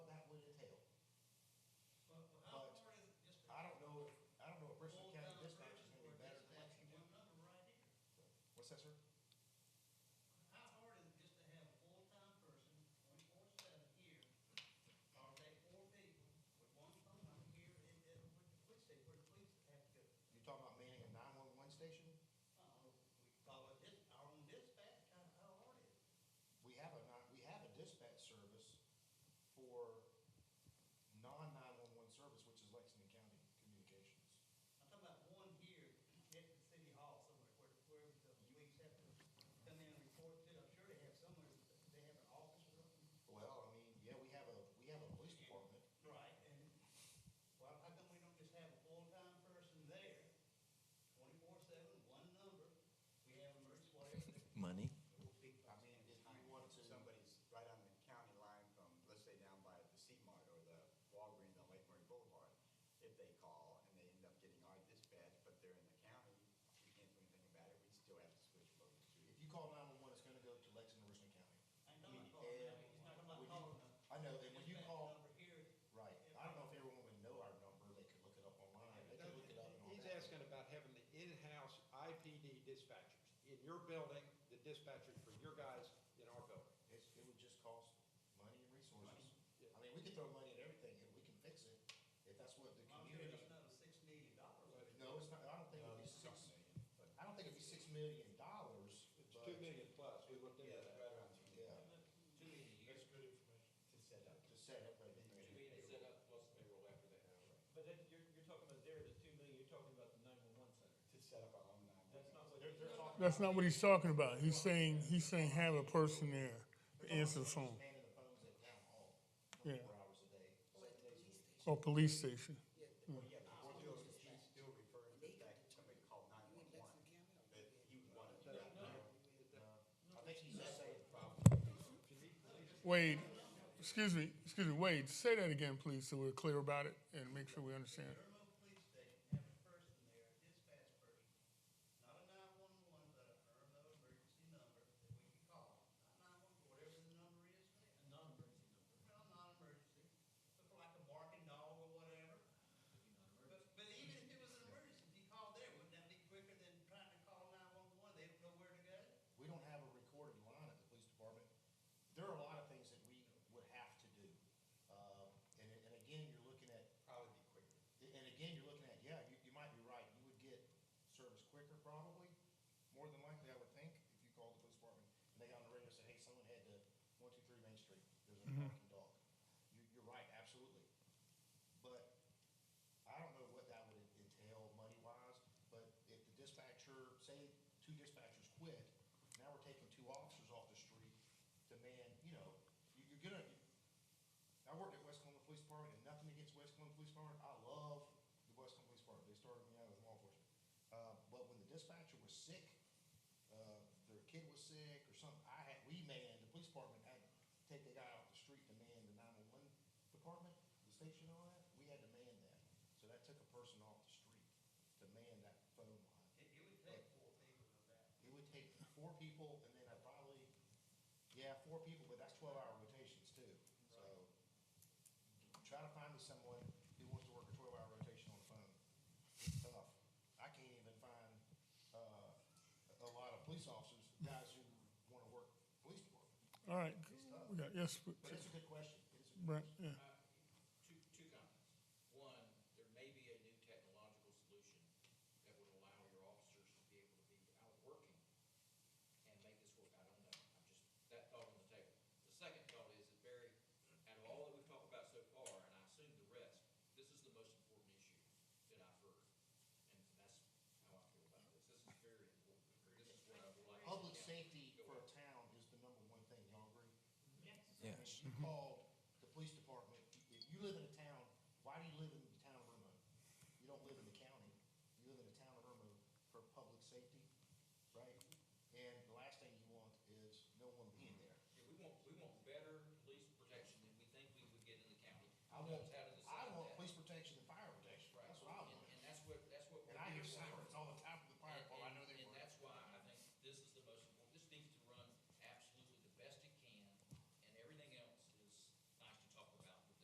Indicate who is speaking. Speaker 1: What's that, sir?
Speaker 2: How hard is it just to have a full-time person, twenty-four seven here, or they four people with one phone number here, and, and wh- which they, where the police have to go?
Speaker 1: You're talking about manning a nine-one-one station?
Speaker 2: Uh, we call it this, our own dispatch, how, how hard is it?
Speaker 1: We have a, non- we have a dispatch service for non-nine-one-one service, which is Lexington County Communications.
Speaker 2: I'm talking about one here at the city hall somewhere, where, where the police have to come in and report to, I'm sure they have somewhere, they have an office or something.
Speaker 1: Well, I mean, yeah, we have a, we have a police department.
Speaker 2: Right, and, well, how come we don't just have a full-time person there, twenty-four seven, one number? We have emergency, whatever.
Speaker 3: Money.
Speaker 1: I mean, if you want to,
Speaker 4: Somebody's right on the county line from, let's say down by the C-Mart or the Walgreens on Lake Murray Boulevard, if they call and they end up getting our dispatch, but they're in the county, we can't do anything about it, we still have to switch them over to.
Speaker 1: if you call nine-one-one, it's gonna go to Lexington, Richland County.
Speaker 2: I know it's called,
Speaker 1: Yeah.
Speaker 2: it's not about
Speaker 1: Would you-
Speaker 2: calling them.
Speaker 1: I know that when you call,
Speaker 2: Number here,
Speaker 1: right, I don't know if everyone would know our number, they could look it up online, they could look it up and all that.
Speaker 5: He's asking about having the in-house IPD dispatchers. In your building, the dispatchers for your guys in our building.
Speaker 1: It's, it would just cost money and resources.
Speaker 5: Yeah.
Speaker 1: I mean, we could throw money at everything and we can fix it if that's what the
Speaker 2: I'm sure
Speaker 1: community.
Speaker 2: that's another six million dollars.
Speaker 5: But
Speaker 1: No, it's not, I don't
Speaker 4: Uh,
Speaker 1: think
Speaker 5: Uh,
Speaker 1: it'd be six, I don't think it'd be six million dollars,
Speaker 5: It's
Speaker 1: but
Speaker 5: two million plus, we looked into
Speaker 4: Yeah, it's
Speaker 5: that.
Speaker 4: right around two.
Speaker 1: Yeah.
Speaker 2: Two million a year.
Speaker 4: To set up.
Speaker 1: to set up a,
Speaker 6: set up plus payroll after that.
Speaker 7: But that, you're, you're talking about there, the two million, you're talking about the nine-one-one center.
Speaker 4: To set up our own nine.
Speaker 7: That's not what.
Speaker 1: they're, they're talking.
Speaker 8: That's not what he's talking about. He's saying, he's saying have a person there
Speaker 1: they're talking
Speaker 8: to answer the
Speaker 1: about
Speaker 8: phone,
Speaker 1: manning the phones at town hall,
Speaker 8: Yeah.
Speaker 1: twenty-four hours a day, seven days a week.
Speaker 8: or police station.
Speaker 4: Well, yeah, but we're still, he's still referring to the fact that somebody called nine-one-one, that he wanted to.
Speaker 1: I think he's just saying,
Speaker 8: Wade, excuse me, excuse me, Wade, say that again, please, so we're clear about it and make sure we understand.
Speaker 2: Irma Police Station, have a person there, a dispatch person, not a nine-one-one, but a Irma emergency number that we can call. Not nine-one, whatever the number is, man.
Speaker 7: A non-emergency number,
Speaker 2: Well, not emergency, look like a barking dog or whatever.
Speaker 7: could be non-emergency.
Speaker 2: But, but even if it was an emergency, if you called there, wouldn't that be quicker than trying to call nine-one-one? They don't know where to go.
Speaker 1: we don't have a recorded line at the police department. There are a lot of things that we would have to do. Uh, and, and again, you're looking at
Speaker 4: Probably be quicker.
Speaker 1: And again, you're looking at, yeah, you, you might be right, you would get service quicker probably, more than likely, I would think, if you called the police department, and they got on the radio and said, hey, someone had to, one, two, three Main Street, there's a barking dog. You, you're right, absolutely. But I don't know what that would entail money-wise, but if the dispatcher, say, two dispatchers quit, now we're taking two officers off the street to man, you know, you, you're gonna, I worked at West Columbia Police Department, and nothing against West Columbia Police Department, I love the West Columbia Police Department, they started me out as law enforcement. Uh, but when the dispatcher was sick, uh, their kid was sick or something, I had, we manned, the police department had to take the guy off the street to man the nine-one-one department, the station and all that, we had to man that. So that took a person off the street to man that phone line.
Speaker 2: It, it would take four people to do
Speaker 1: It would take four people, and then
Speaker 2: that.
Speaker 1: I probably, yeah, four people, but that's twelve-hour rotations too, so. Try to find me someone who wants to work a twelve-hour rotation on the phone. It's tough. I can't even find, uh, a a lot of police officers, guys who wanna work police department.
Speaker 8: All right,
Speaker 1: It's tough.
Speaker 8: we got, yes,
Speaker 1: But it's a good question. It is a good
Speaker 8: Brent,
Speaker 1: question.
Speaker 8: yeah.
Speaker 6: Uh, Two, two comments. One, there may be a new technological solution that would allow your officers to be able to be out working and make this work. I don't know. I'm just, that thought on the table. The second thought is that Barry, out of all that we've talked about so far, and I assume the rest, this is the most important issue that I've heard. And that's how I feel about this. This is very important. This is what I would like.
Speaker 1: Public
Speaker 6: Yeah.
Speaker 1: safety for a town is the number one thing, y'all agree?
Speaker 3: Yes.
Speaker 1: If you called the police department, if you live in a town, why do you live in the town of Irma? You don't live in the county, you live in the town of Irma for public safety,